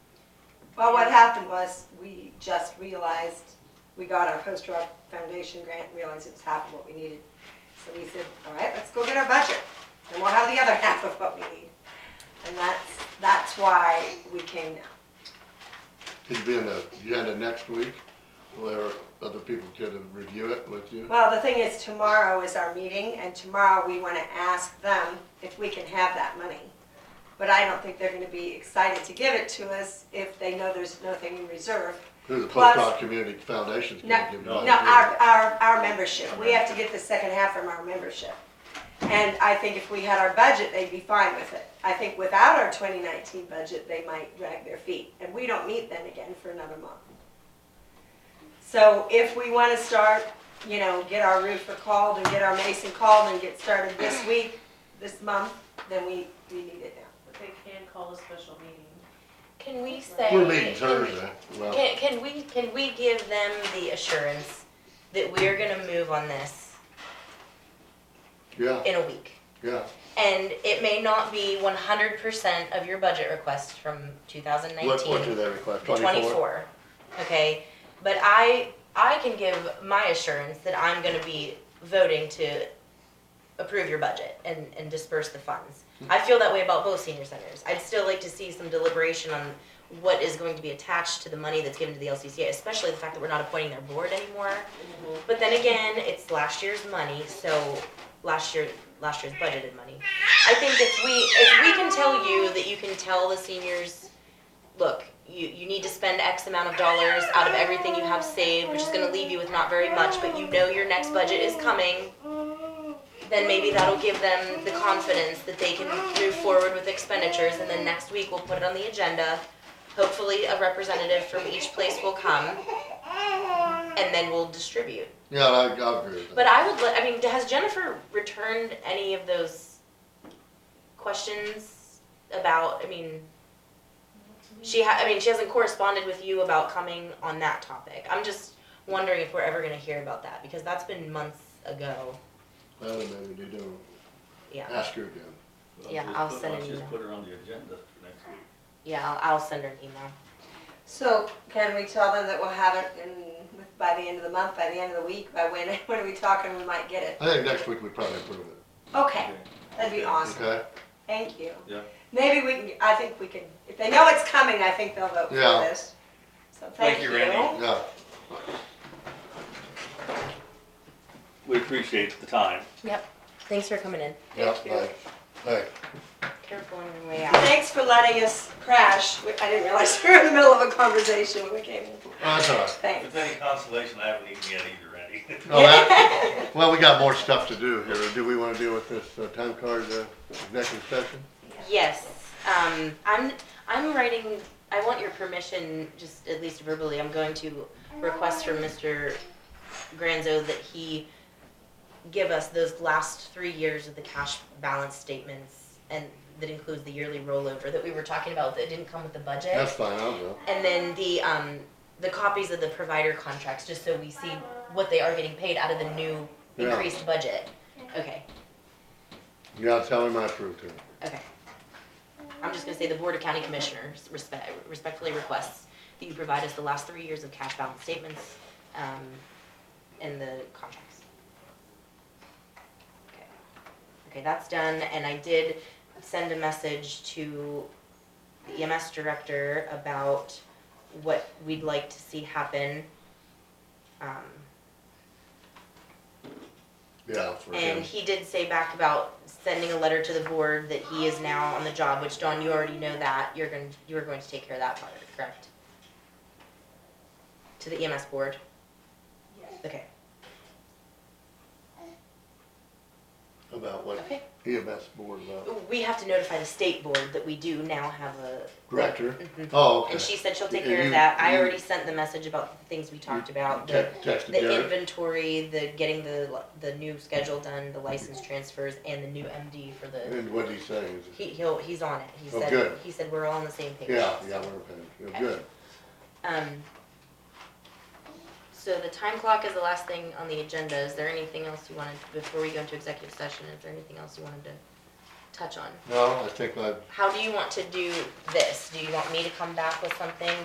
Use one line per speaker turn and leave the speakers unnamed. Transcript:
Well, what happened was, we just realized, we got our post-rock foundation grant, and realized it was half of what we needed. So we said, all right, let's go get our budget, and we'll have the other half of what we need. And that's, that's why we came now.
It'd be in the agenda next week, where other people could review it with you.
Well, the thing is, tomorrow is our meeting, and tomorrow we wanna ask them if we can have that money. But I don't think they're gonna be excited to give it to us if they know there's nothing in reserve.
Who the
Plus-
Pocock Community Foundation's
No,
gonna give you
no,
money.
our, our, our membership, we have to get the second half from our membership. And I think if we had our budget, they'd be fine with it. I think without our twenty nineteen budget, they might drag their feet, and we don't meet then again for another month. So if we wanna start, you know, get our roofer called and get our mason called and get started this week, this month, then we, we need it now.
But they can call a special meeting.
Can we say?
We're meeting Thursday, well,
Can, can we, can we give them the assurance that we're gonna move on this
yeah,
in a week?
yeah,
And it may not be one hundred percent of your budget request from two thousand nineteen.
what, what do they request,
The
twenty-four?
Twenty-four, okay, but I, I can give my assurance that I'm gonna be voting to approve your budget and, and disperse the funds. I feel that way about both senior centers, I'd still like to see some deliberation on what is going to be attached to the money that's given to the LCCA, especially the fact that we're not appointing their board anymore. But then again, it's last year's money, so last year, last year's budgeted money. I think if we, if we can tell you that you can tell the seniors, look, you, you need to spend X amount of dollars out of everything you have saved, which is gonna leave you with not very much, but you know your next budget is coming, then maybe that'll give them the confidence that they can move forward with expenditures, and then next week we'll put it on the agenda. Hopefully, a representative from each place will come, and then we'll distribute.
Yeah, I, I agree with that.
But I would, li- I mean, has Jennifer returned any of those questions about, I mean, she ha, I mean, she hasn't corresponded with you about coming on that topic. I'm just wondering if we're ever gonna hear about that, because that's been months ago,
Well, then maybe they do,
yeah.
ask her again.
Yeah,
just
I'll
put-
send an
Just
email.
put her on the agenda for next week.
Yeah, I'll, I'll send her an email.
So can we tell them that we'll have it in, with- by the end of the month, by the end of the week, by when, when are we talking, we might get it?
I think next week we probably approve it,
Okay, that'd be
Okay.
awesome.
okay?
Thank you.
Yeah.
Maybe we can, I think we can, if they know it's coming, I think they'll vote for
Yeah.
this. So thank you.
you, Randy.
Yeah,
We appreciate the time.
Yep. Thanks for coming in.
yeah,
Thank you.
thanks, thanks.
Careful on your way out.
Thanks for letting us crash. We- I didn't realize we were in the middle of a conversation when we came in.
That's all right.
If
Thanks.
it's any consolation, I haven't eaten yet either, Randy.
Well, that- Well, we got more stuff to do here. Do we wanna deal with this uh, time card, uh, executive session?
Yes, um, I'm, I'm writing, I want your permission, just at least verbally, I'm going to request from Mr. Granzo that he give us those last three years of the cash balance statements and that includes the yearly rollover that we were talking about that didn't come with the budget.
That's fine, I'll go.
And then the, um, the copies of the provider contracts, just so we see what they are getting paid out of the new
Yeah.
increased budget. Okay,
You gotta tell him I approved it.
Okay. I'm just gonna say the Board of County Commissioners respe- respectfully requests that you provide us the last three years of cash balance statements, um, and the contracts. Okay. Okay, that's done, and I did send a message to the EMS director about what we'd like to see happen. Um,
Yeah, for
and
him.
he did say back about sending a letter to the board that he is now on the job, which Dawn, you already know that, you're going, you were going to take care of that part, correct? To the EMS board? Okay,
About what
okay.
EMS board about.
We have to notify the state board that we do now have a.
Director?
Mhm.
Oh, okay.
And she said she'll take
And
care
you-
of that, I
you-
already sent the message about the things we talked about, the
Te- Texted
The
Jared.
inventory, the getting the, li- the new schedule done, the license transfers, and the new MD for the,
And what he saying is,
he, he'll, he's on it, he
Oh, good.
said, he said we're all on the same page.
yeah, yeah, we're okay. You're
Okay.
good.
Um, so the time clock is the last thing on the agenda, is there anything else you wanted, before we go into executive session, is there anything else you wanted to touch on?
No, I think I've
How do you want to do this? Do you want me to come back with something